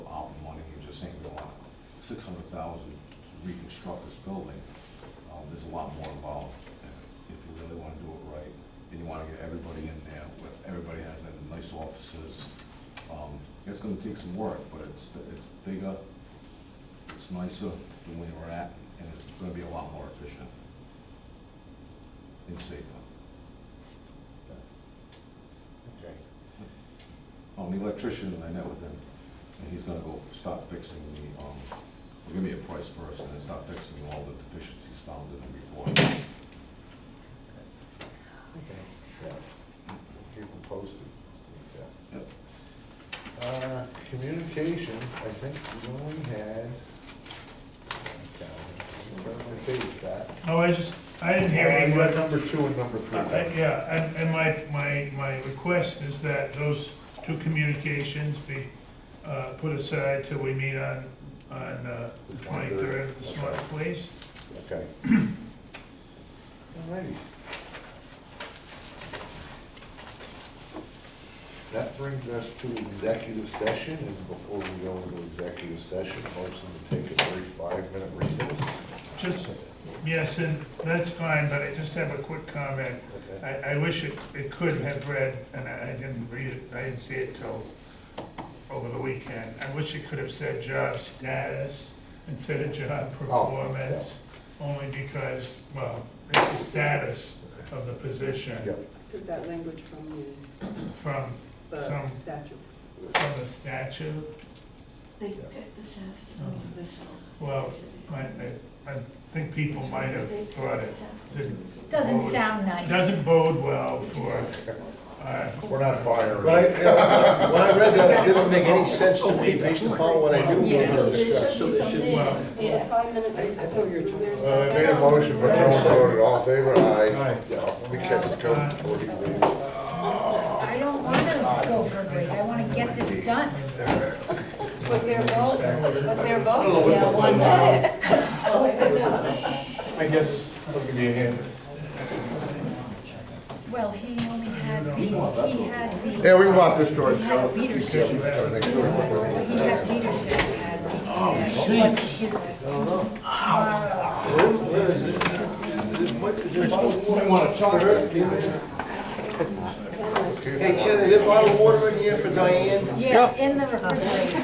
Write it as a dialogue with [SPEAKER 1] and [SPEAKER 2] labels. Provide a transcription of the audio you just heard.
[SPEAKER 1] six hundred thousand to reconstruct this building, um, there's a lot more involved. If you really wanna do it right, and you wanna get everybody in there, with, everybody has their nice offices, um, it's gonna take some work, but it's, it's bigger, it's nicer than where we're at, and it's gonna be a lot more efficient and safer.
[SPEAKER 2] Okay.
[SPEAKER 1] Um, the electrician, I met with him, and he's gonna go start fixing the, um, he'll give me a price first, and then start fixing all the deficiencies found in the report.
[SPEAKER 2] Okay. Yeah. We'll Keep them posted. Yeah.
[SPEAKER 1] Yep.
[SPEAKER 2] Uh, Communications, I think we only had. uh, Page back.
[SPEAKER 3] No, Oh, I just, I didn't hear any,
[SPEAKER 2] Uh,
[SPEAKER 3] but,
[SPEAKER 2] Number two and number three.
[SPEAKER 3] I- yeah, and, and my, my, my request is that those two communications be, uh, put aside till we meet on, on, uh, the twenty-third of this month, please.
[SPEAKER 2] Okay. Alrighty. That brings us to executive session, and before we go into executive session, motion to take a brief five-minute recess.
[SPEAKER 3] Just, yes, and that's fine, but I just have a quick comment.
[SPEAKER 2] Okay.
[SPEAKER 3] I, I wish it, it could have read, and I I didn't read it, I didn't see it till over the weekend. I wish it could have said job status instead of job performance, only because, well, it's the status of the position
[SPEAKER 2] Yep.
[SPEAKER 4] Took that language from the-
[SPEAKER 3] from,
[SPEAKER 4] the
[SPEAKER 3] Some-
[SPEAKER 4] statute.
[SPEAKER 3] from the statute.
[SPEAKER 5] They picked the staff
[SPEAKER 3] Oh. Well, I, I, I think people might have thought it didn't.
[SPEAKER 6] Doesn't
[SPEAKER 3] bode-
[SPEAKER 6] sound nice.
[SPEAKER 3] Doesn't bode well for, uh,
[SPEAKER 2] We're not firing.
[SPEAKER 7] Right, and when I read that, it didn't make any sense to me based upon what I knew we were gonna discuss.
[SPEAKER 5] So there should be
[SPEAKER 3] well,
[SPEAKER 5] some,
[SPEAKER 4] Yeah, five minute
[SPEAKER 7] I- I
[SPEAKER 4] recess,
[SPEAKER 7] thought you were
[SPEAKER 4] was there a
[SPEAKER 2] Uh, I
[SPEAKER 4] second?
[SPEAKER 2] made a motion, but no one voted, all in favor, aye.
[SPEAKER 7] Aye.
[SPEAKER 2] Yeah, we kept it going before he leaves.
[SPEAKER 6] I don't want to go for a break, I want to get this done.
[SPEAKER 4] Was there a vote? Was there a vote?
[SPEAKER 6] Yeah, one minute.
[SPEAKER 7] I guess, I'll give you a hand.
[SPEAKER 6] Well, he only had, the- he had the.
[SPEAKER 2] Yeah, we can walk this door,
[SPEAKER 6] He had leadership, he
[SPEAKER 2] Gotta make sure we're voting.
[SPEAKER 6] had leadership, he had. Oh, Tomorrow,
[SPEAKER 7] Hey, Ken, is there a bottle of water in here for Diane?
[SPEAKER 6] yeah, in the refrigerator.